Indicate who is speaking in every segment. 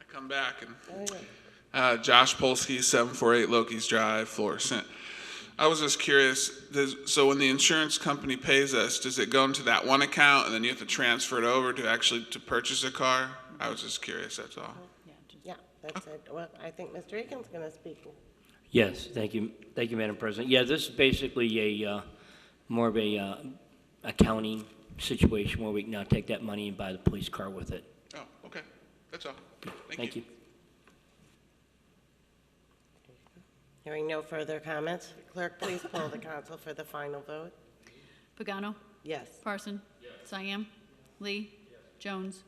Speaker 1: I come back and uh, Josh Polsky, seven four eight Loki's Drive, Florissant. I was just curious. Does, so when the insurance company pays us, does it go into that one account and then you have to transfer it over to actually to purchase a car? I was just curious. That's all.
Speaker 2: Yeah, that's it. Well, I think Mr. Egan's going to speak.
Speaker 3: Yes, thank you, thank you, Madam President. Yeah, this is basically a, uh, more of a uh, accounting situation where we can now take that money and buy the police car with it.
Speaker 1: Oh, okay. That's all. Thank,
Speaker 3: Thank you.
Speaker 2: Hearing no further comments, clerk, please poll the council for the final vote.
Speaker 4: Pagano.
Speaker 2: Yes.
Speaker 4: Parson. Siam, Lee. Jones.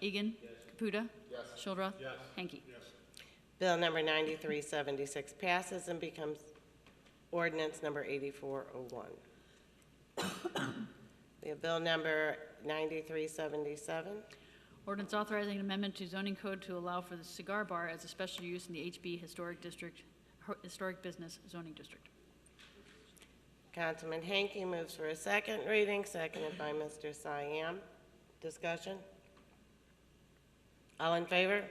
Speaker 4: Egan. Caputa. Shildroth. Hanky.
Speaker 2: Bill number 9376 passes and becomes ordinance number 8401. We have bill number 9377.
Speaker 4: Ordinance authorizing an amendment to zoning code to allow for the cigar bar as a special use in the HB Historic District, Historic Business Zoning District.
Speaker 2: Councilman Hanky moves for a second reading, seconded by Mr. Siam. Discussion? All in favor?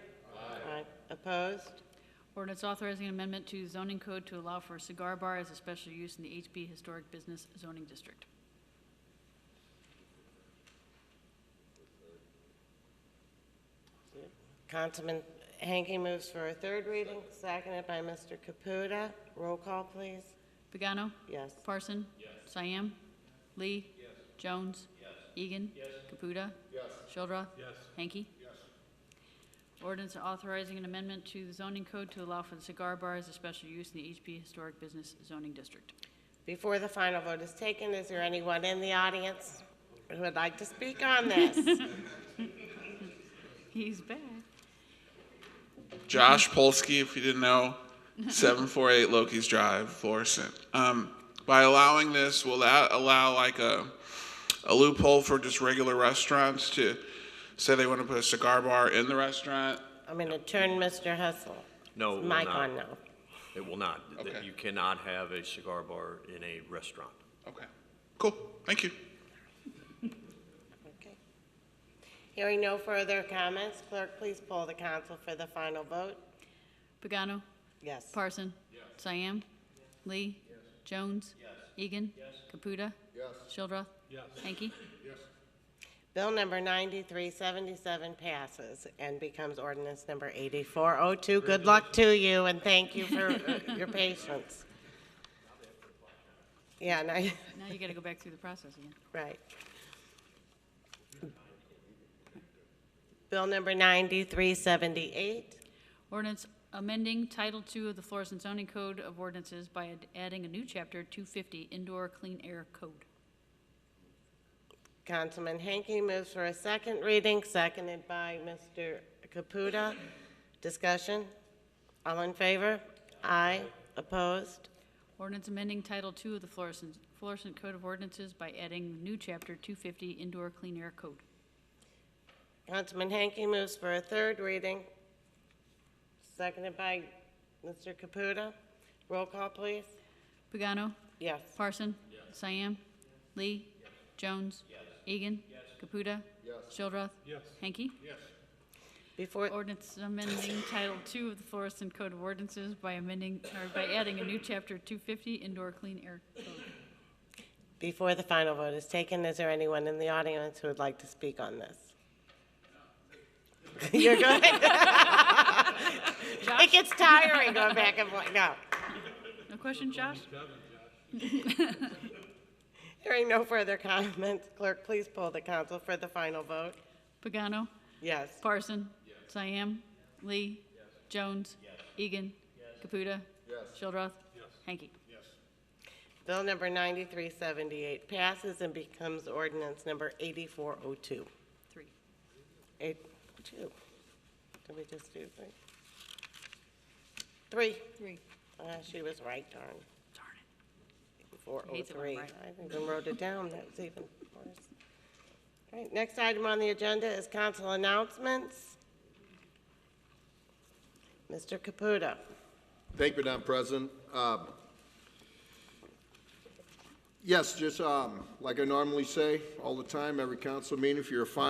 Speaker 2: Aye. Opposed?
Speaker 4: Ordinance authorizing an amendment to zoning code to allow for a cigar bar as a special use in the HB Historic Business Zoning District.
Speaker 2: Councilman Hanky moves for a third reading, seconded by Mr. Caputa. Roll call, please.
Speaker 4: Pagano.
Speaker 2: Yes.
Speaker 4: Parson. Siam, Lee. Jones. Egan. Caputa. Shildroth. Hanky. Ordinance authorizing an amendment to the zoning code to allow for the cigar bar as a special use in the HB Historic Business Zoning District.
Speaker 2: Before the final vote is taken, is there anyone in the audience who would like to speak on this?
Speaker 4: He's back.
Speaker 1: Josh Polsky, if you didn't know, 748 Loki's Drive, Florissant. Um, by allowing this, will that allow like a, a loophole for just regular restaurants to say they want to put a cigar bar in the restaurant?
Speaker 2: I'm going to turn Mr. Hustle.
Speaker 5: No, it will
Speaker 2: Mic
Speaker 5: not.
Speaker 2: on now.
Speaker 5: It will not. That
Speaker 1: Okay.
Speaker 5: You cannot have a cigar bar in a restaurant.
Speaker 1: Okay, cool. Thank you.
Speaker 2: Okay. Hearing no further comments, clerk, please poll the council for the final vote.
Speaker 4: Pagano.
Speaker 2: Yes.
Speaker 4: Parson. Siam, Lee. Jones. Egan. Caputa. Shildroth. Hanky.
Speaker 2: Bill number 9377 passes and becomes ordinance number 8402. Good luck to you, and thank you for uh, your patience. Yeah, and I,
Speaker 4: Now you gotta go back through the process again.
Speaker 2: right. Bill number 9378.
Speaker 4: Ordinance amending Title II of the Flores and Zoning Code of Ordinances by ad- adding a new chapter, 250, Indoor Clean Air Code.
Speaker 2: Councilman Hanky moves for a second reading, seconded by Mr. Caputa. Discussion? All in favor? Aye. Opposed?
Speaker 4: Ordinance amending Title II of the Flores and Flores and Code of Ordinances by adding new chapter, 250, Indoor Clean Air Code.
Speaker 2: Councilman Hanky moves for a third reading, seconded by Mr. Caputa. Roll call, please.
Speaker 4: Pagano?
Speaker 2: Yes.
Speaker 4: Parson? Siam, Lee? Jones? Egan? Caputa? Shildroth? Hanky?
Speaker 2: Before,
Speaker 4: Ordinance amending Title II of the Flores and Code of Ordinances by amending, or by adding a new chapter, 250, Indoor Clean Air Code.
Speaker 2: before the final vote is taken, is there anyone in the audience who would like to speak on this? You're good? It gets tiring going back and forth. No.
Speaker 4: No question, Josh?
Speaker 2: Hearing no further comments, clerk, please poll the council for the final vote.
Speaker 4: Pagano?
Speaker 2: Yes.
Speaker 4: Parson? Siam, Lee? Jones? Egan? Caputa? Shildroth? Hanky?
Speaker 2: Bill number 9378 passes and becomes ordinance number 8402.
Speaker 4: Three.
Speaker 2: Eight, two. Did we just do three? Three.
Speaker 4: Three.
Speaker 2: Ah, she was right, darn.
Speaker 4: Darn it.
Speaker 2: Four oh
Speaker 4: Hates it when I'm
Speaker 2: three.
Speaker 4: right.
Speaker 2: I even wrote it down. That was even worse. All right, next item on the agenda is council announcements. Mr. Caputa.
Speaker 6: Thank you, Madam President. Um, Yes, just um, like I normally say all the time, every council meeting, if you're a fine